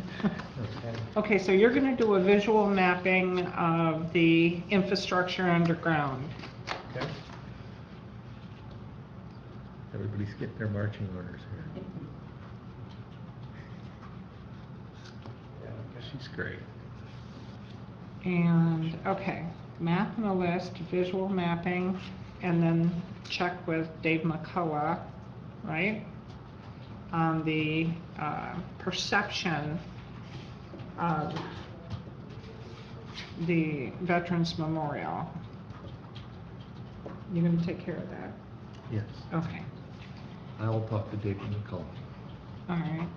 Okay, so you're gonna do a visual mapping of the infrastructure underground. Okay. Everybody's getting their marching orders here. Yeah, She's great. And, okay, map and a list, visual mapping, and then check with Dave McCullough, right? On the uh, perception of the Veterans Memorial. You're gonna take care of that? Yes. Okay, I will talk to David McCullough. all right.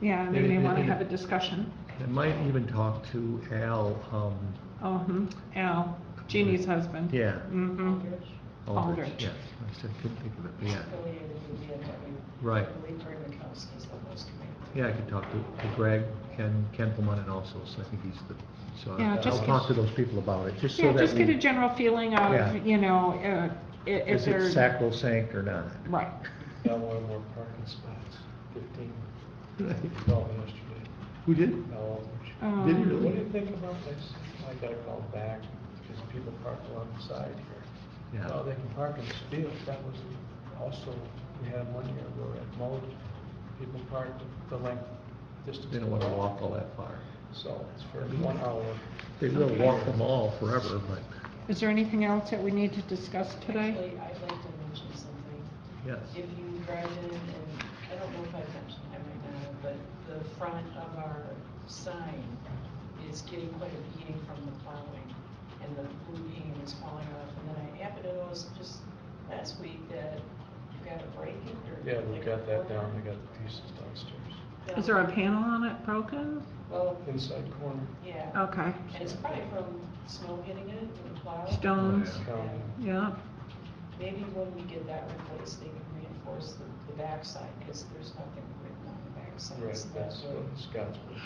Yeah, they may wanna have a discussion. I might even talk to Al, um, Oh, hmm, Al, Jeannie's husband. Yeah. Mm-hmm. Aldrich. Aldrich. Yes, I said, couldn't think of it, but yeah. affiliated with the VFW. Right. I believe Greg Mikowski is the host committee. Yeah, I could talk to to Greg, Ken, Ken Plumon, also, so I think he's the, so I- Yeah, just I'll get- talk to those people about it, just so Yeah, that we... just get a general feeling Yeah. of, you know, uh, i- if Is it they're, sacrosanct or not? right, Now one more parking spots, fifteen, twelve yesterday, Who did? now Aldridge. Did he really? What do you think about this? I gotta call back, because people park along the side here. Well, Yeah, they can park in this field, that was also, we had one year, we were at Mold, people parked the length, distance. they don't want to walk all that far. So it's for one hour. They will walk them all forever, but, is there anything else that we need to discuss today? Actually, I'd like to mention something. yes. If you drive in, and I don't know if I've mentioned it right now, but the front of our sign is getting quite a beating from the plowing, and the blue paint is falling off. And then I happened to notice just last week that you got a break in or. Yeah, we got that down, we got the pieces downstairs, Is there a panel on it broken? Well, inside corner. yeah, Okay, and it's probably from snow hitting it and the plow. stones, County. yeah, Maybe when we get that replaced, they can reinforce the, the backside, because there's nothing written on the backside. Right, so that's would- what Scott's. yeah.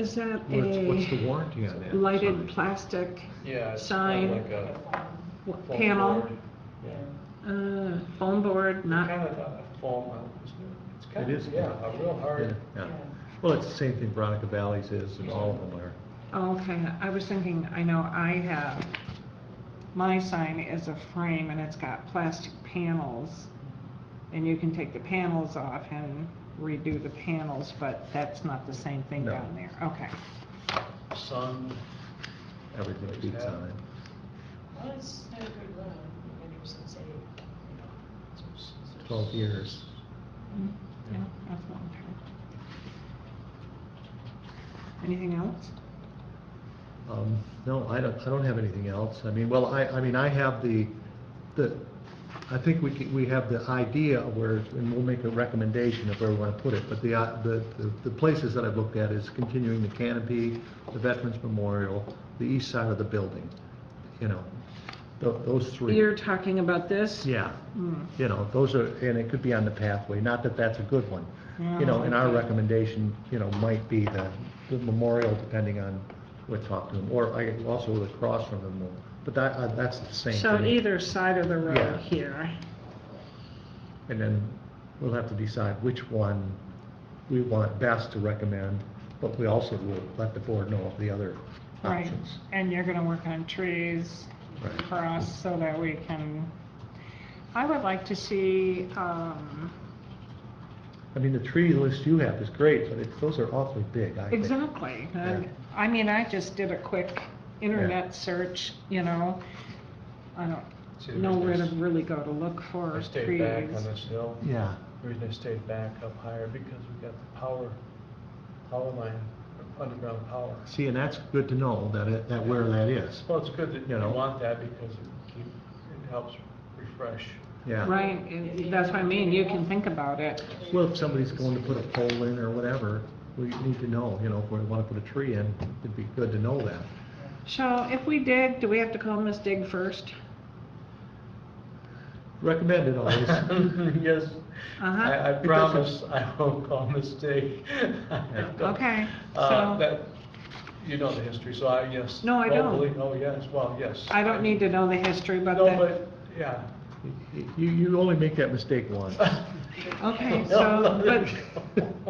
is that What's, what's the a warranty on that? lighted Sorry. plastic Yeah. it's Sign. Like a Like a farm, w- foam panel? board. Yeah. Uh, foam board, Kind not, of a foam, uh, isn't it? It's kind It is. of, yeah, a real Yeah, hard, yeah. yeah. Well, it's the same thing Veronica Valley's is, and all of them are. okay, I was thinking, I know I have, my sign is a frame and it's got plastic panels. And you can take the panels off and redo the panels, but that's not the same thing No. down there. Okay, sun, Everything beats on it. Well, it's had a good run, many years since eight. Twelve years. Mm-hmm. yeah, that's a long time. Anything else? Um, no, I don't, I don't have anything else. I mean, well, I, I mean, I have the, the, I think we could, we have the idea of where, and we'll make a recommendation of where we want to put it, but the, uh, the, the- the places that I've looked at is continuing the canopy, the Veterans Memorial, the east side of the building, you know, tho- those three. You're talking about this? Yeah, Hmm. you know, those are, and it could be on the pathway, not that that's a good one. You know, and our Yeah, okay. recommendation, you know, might be the, the memorial, depending on what talk to them, or I, also the cross from the memorial, but that, uh, that's the same So thing. either side of the Yeah. road here. And then we'll have to decide which one we want best to recommend, but we also will let the board know of the other Right, options. and you're gonna work on trees Right. for us so that we can, I would like to see, um, I mean, the tree list you have is great, but it's, those are awfully big, I think. exactly. And, Yeah. I mean, I just did a quick internet search, you know, I don't see, know where to they really go to look for stayed back trees. on this hill. Yeah, The reason they stayed back up higher, because we got the power, power line, underground power. see, and that's good to know that, it- that where that is, Well, it's good that You you know. want that, because it keep, it helps refresh. yeah. Right, and that's what I mean, you can think about it. Well, if somebody's going to put a pole in or whatever, we need to know, you know, if we want to put a tree in, it'd be good to know that. So if we dig, do we have to call Miss Dig first? Recommended always. Yes, Uh-huh, I, I promise I won't call mistake. okay, Uh, so, that, you know the history, so I, yes. No, I don't. locally, Oh, yes, well, yes. I don't need to know the history, but No, that, but, yeah. You, you only make that mistake once. okay, so, but